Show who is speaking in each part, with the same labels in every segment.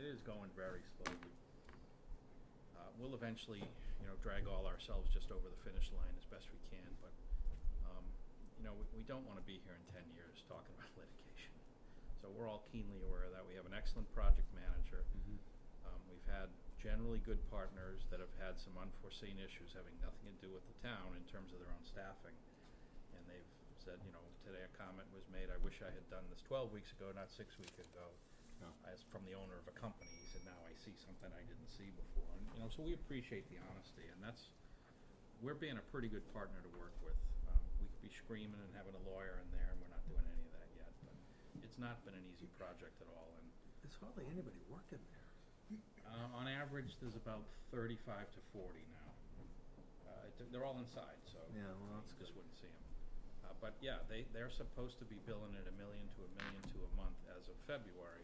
Speaker 1: is going very slowly. Uh, we'll eventually, you know, drag all ourselves just over the finish line as best we can, but, um, you know, we, we don't wanna be here in ten years talking about litigation. So we're all keenly aware of that. We have an excellent project manager. Um, we've had generally good partners that have had some unforeseen issues having nothing to do with the town in terms of their own staffing. And they've said, you know, today a comment was made, I wish I had done this twelve weeks ago, not six weeks ago.
Speaker 2: Yeah.
Speaker 1: As from the owner of a company, he said, now I see something I didn't see before, and, you know, so we appreciate the honesty, and that's, we're being a pretty good partner to work with. Um, we could be screaming and having a lawyer in there, and we're not doing any of that yet, but it's not been an easy project at all, and
Speaker 3: There's hardly anybody working there.
Speaker 1: uh, on average, there's about thirty-five to forty now. Uh, it- they're all inside, so.
Speaker 3: Yeah,
Speaker 1: you
Speaker 3: well, that's
Speaker 1: Just
Speaker 3: good.
Speaker 1: wouldn't see them. Uh, but yeah, they, they're supposed to be billing at a million to a million to a month as of February.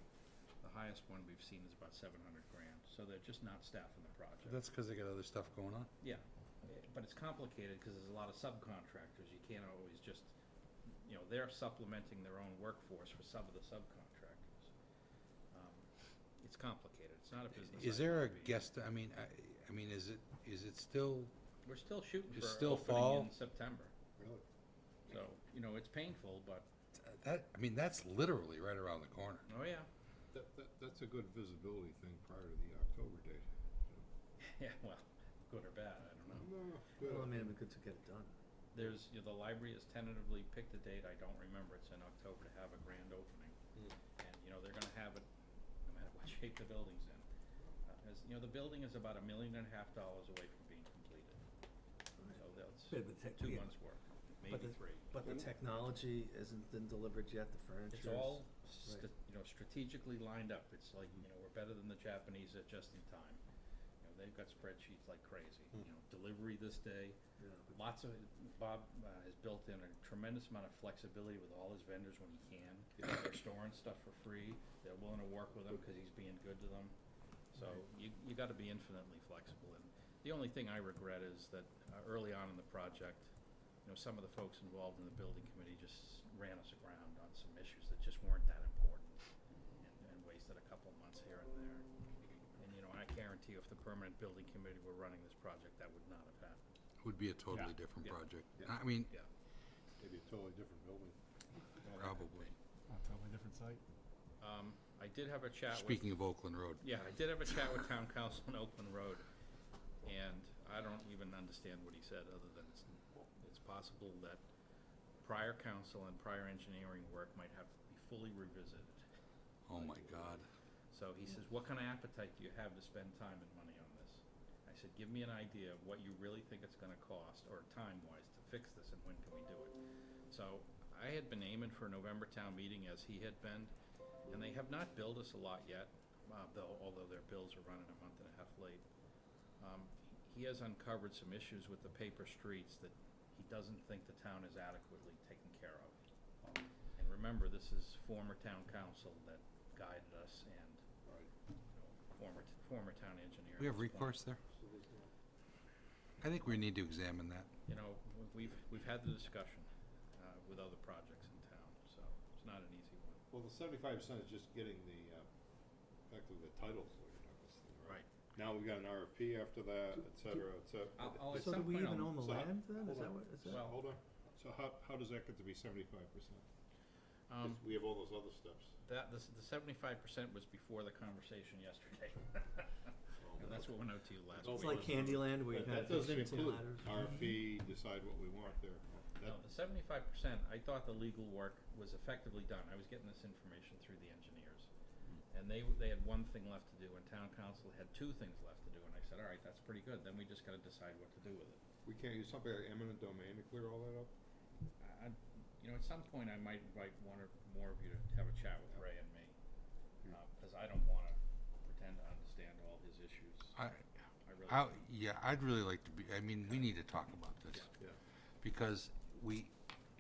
Speaker 1: The highest one we've seen is about seven hundred grand, so they're just not staffing the project.
Speaker 2: That's because they got other stuff going on.
Speaker 1: Yeah, eh, but it's complicated because there's a lot of subcontractors. You can't always just, you know, they're supplementing their own workforce for some of the subcontractors. Um, It's complicated. It's not a business.
Speaker 2: Is
Speaker 1: I
Speaker 2: there a
Speaker 1: wanna be in.
Speaker 2: guest, I mean, I, I mean, is it, is it still,
Speaker 1: We're still shooting
Speaker 2: It's
Speaker 1: for
Speaker 2: still fall.
Speaker 1: opening in September.
Speaker 4: Really?
Speaker 1: So, you know, it's painful, but,
Speaker 2: that, I mean, that's literally right around the corner.
Speaker 1: oh yeah,
Speaker 4: That, that, that's a good visibility thing prior to the October date.
Speaker 1: yeah, well, good or bad, I don't know.
Speaker 4: No,
Speaker 3: Well, I
Speaker 4: good.
Speaker 3: mean, it'd be good to get it done.
Speaker 1: There's, you know, the library has tentatively picked a date, I don't remember, it's in October to have a grand opening.
Speaker 3: Hmm.
Speaker 1: And, you know, they're gonna have it, no matter what shape the building's in. Uh, As, you know, the building is about a million and a half dollars away from being completed, so that's
Speaker 3: But the tech-
Speaker 1: two
Speaker 3: yeah.
Speaker 1: months' work,
Speaker 3: But
Speaker 1: maybe
Speaker 3: the-
Speaker 1: three.
Speaker 3: But the
Speaker 4: Mm.
Speaker 3: technology isn't been delivered yet, the furniture.
Speaker 1: It's
Speaker 3: is-
Speaker 1: all, st- you know, strategically lined up. It's like, you know, we're better than the Japanese at just in time. You know, they've got spreadsheets like crazy, you know, delivery this day.
Speaker 3: Yeah, but-
Speaker 1: Lots of, Bob uh, has built in a tremendous amount of flexibility with all his vendors when he can. They're storing stuff for free. They're willing to work with him because he's being good to them. So you, you gotta be infinitely flexible. And the only thing I regret is that uh, early on in the project, you know, some of the folks involved in the building committee just ran us aground on some issues that just weren't that important and, and wasted a couple months here and there. And, you know, I guarantee you if the permanent building committee were running this project, that would not have happened.
Speaker 2: Would be a totally
Speaker 1: Yeah.
Speaker 2: different
Speaker 1: Yeah.
Speaker 2: project.
Speaker 4: Yeah.
Speaker 2: I mean,
Speaker 1: Yeah.
Speaker 4: Maybe a totally different building.
Speaker 2: probably.
Speaker 5: On totally different site.
Speaker 1: Um, I did have a chat with.
Speaker 2: Speaking of Oakland Road,
Speaker 1: Yeah, I did have a chat with town council on Oakland Road, and I don't even understand what he said, other than it's, it's possible that prior council and prior engineering work might have to be fully revisited.
Speaker 2: oh my God.
Speaker 1: So he says, what kind of appetite do you have to spend time and money on this? I said, give me an idea of what you really think it's gonna cost, or time-wise, to fix this, and when can we do it? So I had been aiming for a November town meeting as he had been, and they have not billed us a lot yet, uh, though, although their bills are running a month and a half late. Um, he has uncovered some issues with the paper streets that he doesn't think the town is adequately taken care of. And remember, this is former town council that guided us and,
Speaker 4: Right.
Speaker 1: you know, former, former town engineer.
Speaker 2: We
Speaker 1: at
Speaker 2: have
Speaker 1: this point.
Speaker 2: recourse there? I think we need to examine that.
Speaker 1: You know, w- we've, we've had the discussion, uh, with other projects in town, so it's not an easy one.
Speaker 4: Well, the seventy-five percent is just getting the, uh, effectively the title for your Douglas thing, right? Now we got an RFP after that, et cetera, et cetera.
Speaker 1: I'll, I'll at
Speaker 3: So do
Speaker 1: some
Speaker 3: we
Speaker 1: point,
Speaker 3: even
Speaker 1: I'll-
Speaker 3: own the
Speaker 4: so how-
Speaker 3: land then? Is
Speaker 4: hold on.
Speaker 3: that what, is that?
Speaker 1: Well-
Speaker 4: Hold on, so how, how does that get to be seventy-five percent?
Speaker 1: um,
Speaker 4: we have all those other steps.
Speaker 1: That, this, the seventy-five percent was before the conversation yesterday. And that's what went out to you last
Speaker 4: It's
Speaker 1: week.
Speaker 3: It's like Candyland where you
Speaker 4: But
Speaker 3: have
Speaker 4: that
Speaker 3: those
Speaker 4: doesn't
Speaker 3: shoots and
Speaker 4: include
Speaker 3: ladders. Mm-hmm.
Speaker 4: RFP, decide what we want there.
Speaker 1: No,
Speaker 4: That-
Speaker 1: the seventy-five percent, I thought the legal work was effectively done. I was getting this information through the engineers. And they, they had one thing left to do, and town council had two things left to do, and I said, all right, that's pretty good, then we just gotta decide what to do with it.
Speaker 4: We can't use something like eminent domain to clear all that up?
Speaker 1: I, I, you know, at some point, I might invite one or more of you to have a chat with Ray and me, uh, cause I don't wanna pretend to understand all his issues.
Speaker 2: I,
Speaker 1: I really
Speaker 2: I,
Speaker 1: don't.
Speaker 2: yeah, I'd really like to be, I mean, we need to talk about this.
Speaker 4: Yeah.
Speaker 2: Because we,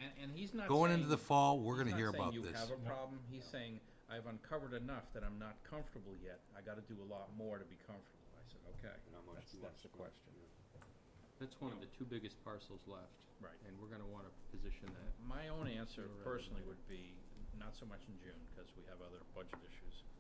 Speaker 1: And, and he's not
Speaker 2: going into
Speaker 1: saying-
Speaker 2: the fall, we're
Speaker 1: he's
Speaker 2: gonna
Speaker 1: not
Speaker 2: hear
Speaker 1: saying
Speaker 2: about
Speaker 1: you have
Speaker 2: this.
Speaker 1: a problem. He's saying I've uncovered enough that I'm not comfortable yet. I got to do a lot more to be comfortable. I said, okay,
Speaker 4: And how much
Speaker 1: that's,
Speaker 4: do you want
Speaker 1: that's the
Speaker 4: to spend?
Speaker 1: question,
Speaker 6: That's one of the two biggest parcels left,
Speaker 1: right?
Speaker 6: and we're gonna wanna position that.
Speaker 1: My own answer
Speaker 6: Sooner rather than
Speaker 1: personally
Speaker 6: later.
Speaker 1: would be not so much in June because we have other budget issues,